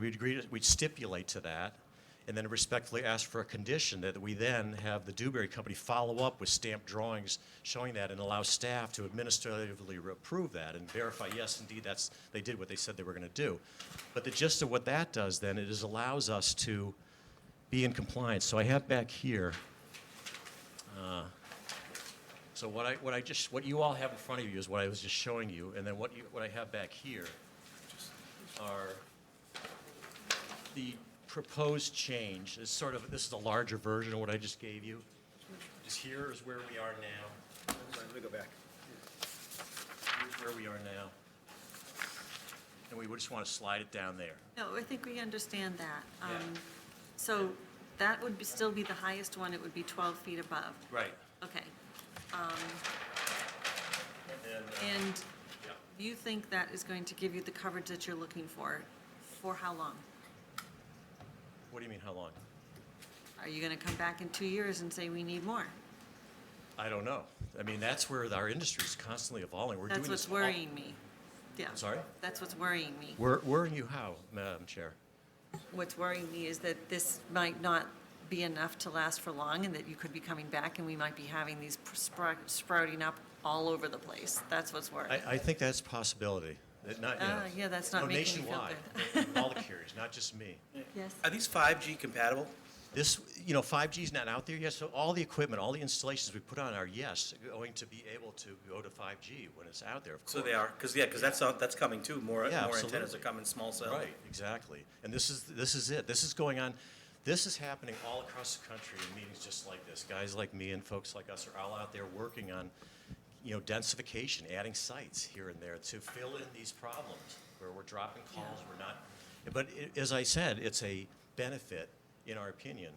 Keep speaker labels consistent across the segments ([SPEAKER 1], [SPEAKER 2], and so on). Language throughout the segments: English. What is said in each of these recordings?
[SPEAKER 1] we'd agree, to- we'd stipulate to that, and then respectfully ask for a condition that we then have the Dewberry Company follow up with stamped drawings showing that and allow staff to administratively approve that and verify, yes, indeed, that's, they did what they said they were gonna do. But the gist of what that does then, it is allows us to be in compliance. So I have back here, uh, so what I, what I just, what you all have in front of you is what I was just showing you, and then what you, what I have back here are the proposed change, is sort of, this is a larger version of what I just gave you. Is here is where we are now,
[SPEAKER 2] Let me go back.
[SPEAKER 1] here's where we are now. And we would just want to slide it down there.
[SPEAKER 3] No, I think we understand that.
[SPEAKER 1] Yeah.
[SPEAKER 3] Um, So that would be, still be the highest one, it would be 12 feet above.
[SPEAKER 1] Right.
[SPEAKER 3] Okay.
[SPEAKER 1] And then, uh,
[SPEAKER 3] And
[SPEAKER 1] yeah.
[SPEAKER 3] you think that is going to give you the coverage that you're looking for? For how long?
[SPEAKER 1] What do you mean, how long?
[SPEAKER 3] Are you going to come back in two years and say, we need more?
[SPEAKER 1] I don't know. I mean, that's where our industry is constantly evolving. We're doing
[SPEAKER 3] That's
[SPEAKER 1] this.
[SPEAKER 3] what's
[SPEAKER 1] all-
[SPEAKER 3] worrying me. Yeah.
[SPEAKER 1] Sorry?
[SPEAKER 3] That's what's worrying me.
[SPEAKER 1] Wor- Worrying you how, Madam Chair?
[SPEAKER 3] What's worrying me is that this might not be enough to last for long, and that you could be coming back, and we might be having these spr- sprouting up all over the place. That's what's worrying.
[SPEAKER 1] I, I think that's a possibility. That not, you know,
[SPEAKER 3] Ah, yeah, that's not
[SPEAKER 1] no,
[SPEAKER 3] making me feel
[SPEAKER 1] nationwide. All the carriers, not just me.
[SPEAKER 3] Yes.
[SPEAKER 2] Are these 5G compatible?
[SPEAKER 1] This, you know, 5G's not out there yet, so all the equipment, all the installations we put on are, yes, going to be able to go to 5G when it's out there, of course.
[SPEAKER 2] So they are, because, yeah, because that's, uh, that's coming too. More,
[SPEAKER 1] Yeah,
[SPEAKER 2] more antennas
[SPEAKER 1] absolutely.
[SPEAKER 2] are coming, small cell.
[SPEAKER 1] Right, exactly. And this is, this is it. This is going on, this is happening all across the country in meetings just like this. Guys like me and folks like us are all out there working on, you know, densification, adding sites here and there to fill in these problems where we're dropping calls, we're not. But i as I said, it's a benefit, in our opinion,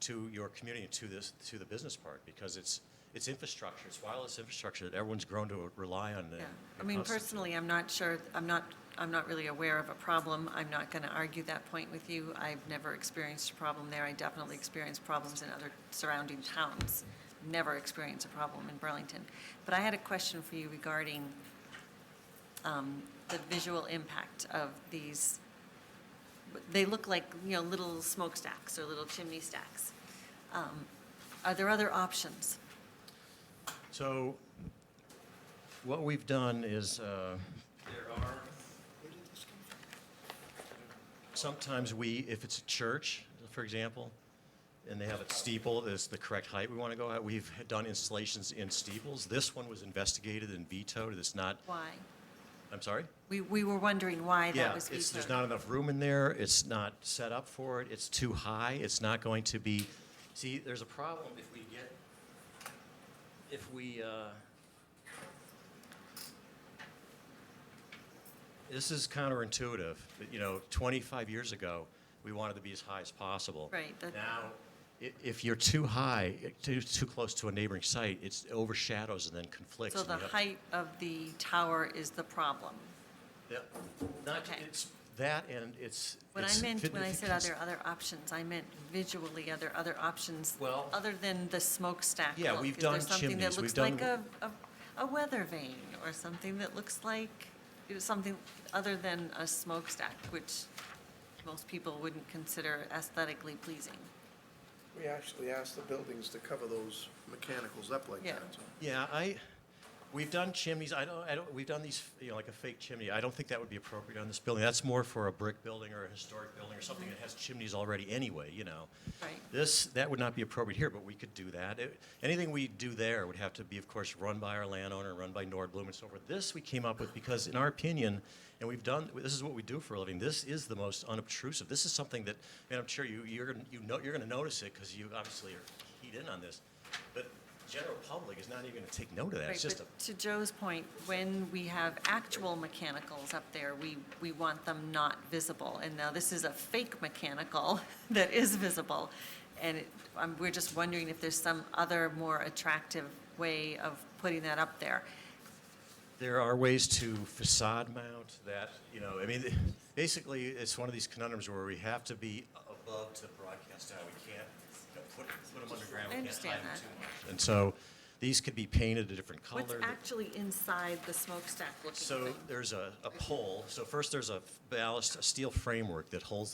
[SPEAKER 1] to your community, to this, to the business part, because it's, it's infrastructure, it's wireless infrastructure that everyone's grown to rely on. and
[SPEAKER 3] Yeah. I mean,
[SPEAKER 1] constantly-
[SPEAKER 3] personally, I'm not sure, I'm not, I'm not really aware of a problem. I'm not going to argue that point with you. I've never experienced a problem there. I definitely experienced problems in other surrounding towns. Never experienced a problem in Burlington. But I had a question for you regarding um, the visual impact of these. They look like, you know, little smokestacks or little chimney stacks. Um, Are there other options?
[SPEAKER 1] So what we've done is, uh, there are, sometimes we, if it's a church, for example, and they have a steeple that's the correct height we want to go at, we've done installations in steeples. This one was investigated and vetoed, it's not,
[SPEAKER 3] Why?
[SPEAKER 1] I'm sorry?
[SPEAKER 3] We, we were wondering why that
[SPEAKER 1] Yeah,
[SPEAKER 3] was
[SPEAKER 1] it's, there's
[SPEAKER 3] vetoed.
[SPEAKER 1] not enough room in there, it's not set up for it, it's too high, it's not going to be, see, there's a problem if we get, if we, uh, this is counterintuitive, but, you know, 25 years ago, we wanted to be as high as possible.
[SPEAKER 3] Right, that-
[SPEAKER 1] Now, i- if you're too high, too, too close to a neighboring site, it's overshadows and then conflicts.
[SPEAKER 3] So
[SPEAKER 1] and you
[SPEAKER 3] the
[SPEAKER 1] have-
[SPEAKER 3] height of the tower is the problem.
[SPEAKER 1] yeah, not,
[SPEAKER 3] Okay.
[SPEAKER 1] it's that and it's.
[SPEAKER 3] What I
[SPEAKER 1] it's
[SPEAKER 3] meant,
[SPEAKER 1] fit-
[SPEAKER 3] when I
[SPEAKER 1] if
[SPEAKER 3] said
[SPEAKER 1] you
[SPEAKER 3] other, other options, I meant visually, other, other options.
[SPEAKER 1] Well-
[SPEAKER 3] Other than the smokestack.
[SPEAKER 1] Yeah,
[SPEAKER 3] look.
[SPEAKER 1] we've
[SPEAKER 3] Is there
[SPEAKER 1] done
[SPEAKER 3] something that
[SPEAKER 1] chimneys, we've
[SPEAKER 3] looks
[SPEAKER 1] done
[SPEAKER 3] like a, a, a weather vane or something that looks like, it was something other than a smokestack, which most people wouldn't consider aesthetically pleasing.
[SPEAKER 4] We actually asked the buildings to cover those mechanicals up like
[SPEAKER 3] Yeah.
[SPEAKER 4] that, so.
[SPEAKER 1] Yeah, I, we've done chimneys, I don't, I don't, we've done these, you know, like a fake chimney. I don't think that would be appropriate on this building. That's more for a brick building or a historic building or something that has chimneys already anyway, you know.
[SPEAKER 3] Right.
[SPEAKER 1] This, that would not be appropriate here, but we could do that. It- Anything we do there would have to be, of course, run by our landowner, run by Nordblum and so forth. This we came up with because, in our opinion, and we've done, this is what we do for a living, this is the most unobtrusive. This is something that, and I'm sure you, you're, gonna- you know, you're gonna notice it because you obviously are keyed in on this. But general public is not even gonna take note of that. It's
[SPEAKER 3] Right,
[SPEAKER 1] just a,
[SPEAKER 3] but To Joe's point, when we have actual mechanicals up there, we, we want them not visible. And now this is a fake mechanical that is visible. And it, um, we're just wondering if there's some other more attractive way of putting that up there.
[SPEAKER 1] there are ways to facade mount that, you know, I mean, basically, it's one of these conundrums where we have to be above to broadcast out. We can't, you know, put, put them underground.
[SPEAKER 3] I
[SPEAKER 1] We can't
[SPEAKER 3] understand
[SPEAKER 1] hide them
[SPEAKER 3] that.
[SPEAKER 1] too much. And so these could be painted a different color.
[SPEAKER 3] What's actually inside the smokestack looking
[SPEAKER 1] So
[SPEAKER 3] thing?
[SPEAKER 1] there's a, a pole. So first, there's a ballast, a steel framework that holds